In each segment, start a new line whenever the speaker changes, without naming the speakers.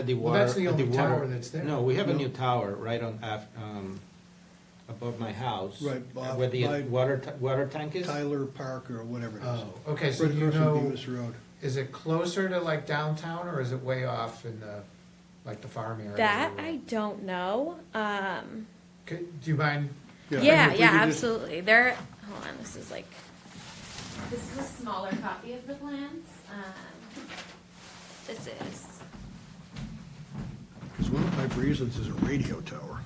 At the
Well,
water.
that's the
at
only
water-
tower that's there.
No, we have a
No.
new tower right on, af- um, above my house.
Right, Bob,
Where the
by-
uh, water, ta- water tank is?
Tyler Park or whatever it
Oh,
is.
okay, so
Right
you
across from
know,
Bemis Road.
is it closer to like downtown or is it way off in the, like the farm area?
That I don't know. Um,
Could, do you mind,
I
yeah,
think we
yeah,
could just-
absolutely. There. Hold on. This is like.
This is a smaller copy of the plans. Um, This is,
Because one of my reasons is a radio tower.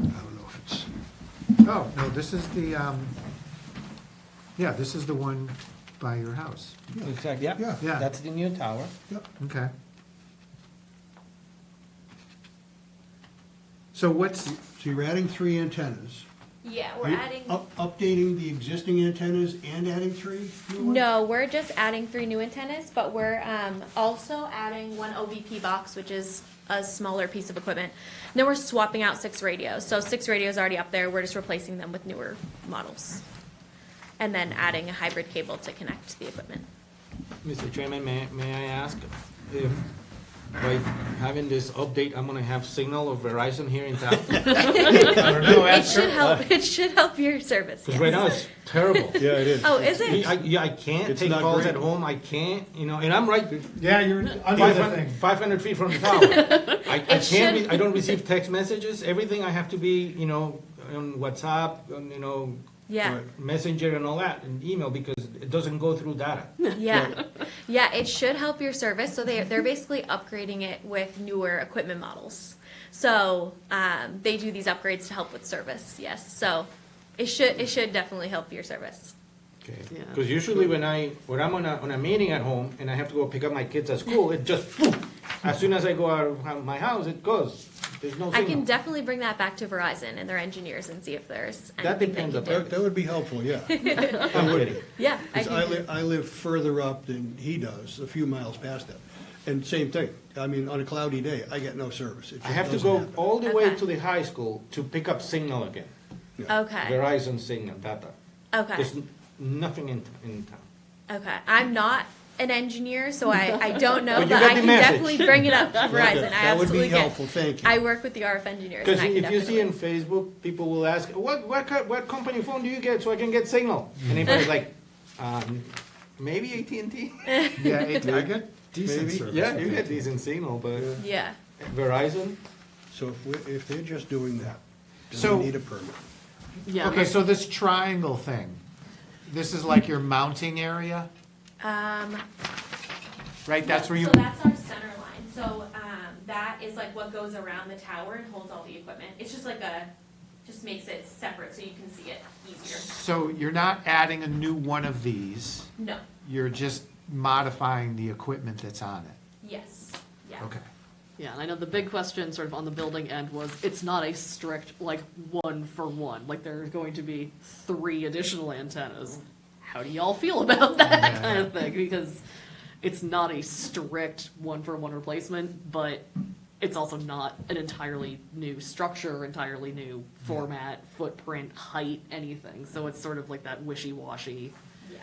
I don't know if it's,
oh, no, this is the, um, yeah, this is the one by your house.
Exactly, yeah.
Yeah.
Yeah.
That's the new tower.
yep,
Okay. So what's,
so you're adding three antennas.
yeah, we're
Are you oh,
adding,
up- Updating the existing antennas and adding three new ones?
No, we're just adding three new antennas, but we're um, also adding one OBP box, which is a smaller piece of equipment. And then we're swapping out six radios. So six radios already up there. We're just replacing them with newer models, and then adding a hybrid cable to connect the equipment.
Mr. Chairman, may, may I ask if by having this update, I'm gonna have signal of Verizon here in town?
I don't know,
It
that's
should help. It should help your service.
Because right
yes.
now it's terrible.
Yeah, it is.
Oh, is it?
I, yeah, I can't
It's
take
not
calls
great.
at home, I can't, you know, and I'm right
yeah, you're under the thing.
five hundred feet from the tower. I, I
It
can't, re-
should-
I don't receive text messages, everything I have to be, you know, on WhatsApp, on, you know,
Yeah.
Right.
Messenger and all that, and email, because it doesn't go through data.
Yeah, yeah, it should help your service. So they they're basically upgrading it with newer equipment models. So um, they do these upgrades to help with service. Yes, so it should it should definitely help your service.
Okay.
Yeah.
Because usually when I, when I'm on a, on a meeting at home, and I have to go pick up my kids at school, it just, poof. as soon as I go out of my house, it goes, there's no
I can
signal.
definitely bring that back to Verizon and their engineers and see if there's anything
That depends
they
on
can do.
That, that would be helpful, yeah.
I'm kidding.
Yeah, I
Because I
can,
live, I live further up than he does, a few miles past that. And same thing, I mean, on a cloudy day, I get no service. It
I
just
have to
doesn't
go
happen.
all the way
Okay.
to the high school to pick up signal again,
okay,
Verizon signal, data.
okay.
There's n- nothing in, in town.
Okay, I'm not an engineer, so I, I don't know,
But
but,
you got
I
the
can
message.
definitely bring it up to
Okay,
Verizon. I
That would be
absolutely can.
helpful, thank you.
I work with the RF engineers.
Because
and I can
if you see
definitely-
in Facebook, people will ask, what, what, co- what company phone do you get so I can get signal? And everybody's like, um, maybe AT&T?
Yeah, it- I get decent
Maybe,
service.
Yeah,
I
you get
think.
decent signal, but
Yeah.
Verizon?
So if, we- if they're just doing that, do
So-
we need a permit?
Yeah.
Okay, so this triangle thing, this is like your mounting area,
Um,
right? That's where you,
So that's our center line. So um, that is like what goes around the tower and holds all the equipment. It's just like a, just makes it separate so you can see it easier.
so you're not adding a new one of these,
No.
you're just modifying the equipment that's on it.
Yes. Yeah.
Okay.
Yeah, and I know the big question sort of on the building end was, it's not a strict, like, one for one, like, there's going to be three additional antennas. How do y'all feel about that kind of thing? Because it's not a strict one for one replacement, but it's also not an entirely new structure, entirely new format, footprint, height, anything. So it's sort of like that wishy-washy
Yeah.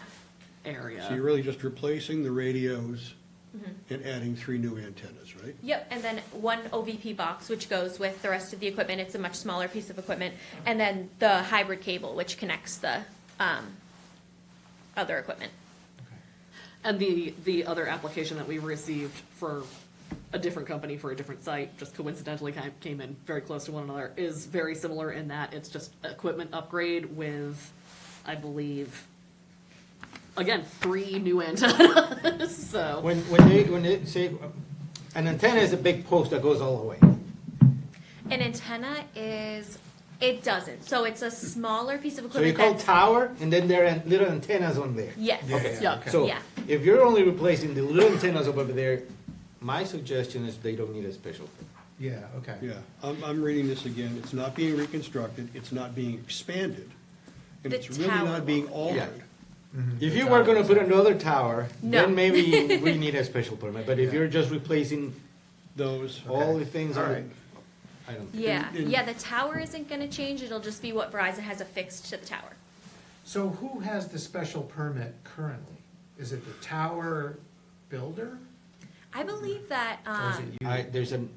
area.
So you're really just replacing the radios
Mm-hmm.
and adding three new antennas, right?
Yep, and then one OVP box, which goes with the rest of the equipment. It's a much smaller piece of equipment. And then the hybrid cable, which connects the um, other equipment.
And the, the other application that we received for a different company for a different site, just coincidentally kind of came in very close to one another, is very similar in that it's just equipment upgrade with, I believe, again, three new antennas, so.
When, when they, when they say, an antenna is a big post that goes all the way.
An antenna is, it doesn't. So it's a smaller piece of
So you
equipment
call
that's-
tower, and then there are little antennas on there.
Yes.
Okay.
Yeah.
So
Yeah.
if you're only replacing the little antennas over there, my suggestion is they don't need a special.
Yeah, okay.
Yeah, I'm, I'm reading this again, it's not being reconstructed, it's not being expanded, and
The
it's really
tower.
not being
Yeah.
altered.
If you were gonna put another tower,
No.
then maybe we need a special permit, but if you're just replacing
Those,
all the things
All
on,
right.
I don't. think-
Yeah,
In- in-
yeah, the tower isn't gonna change, it'll just be what Verizon has affixed to the tower.
So who has the special permit currently? Is it the tower builder?
I believe that, um.
um, I, there's an,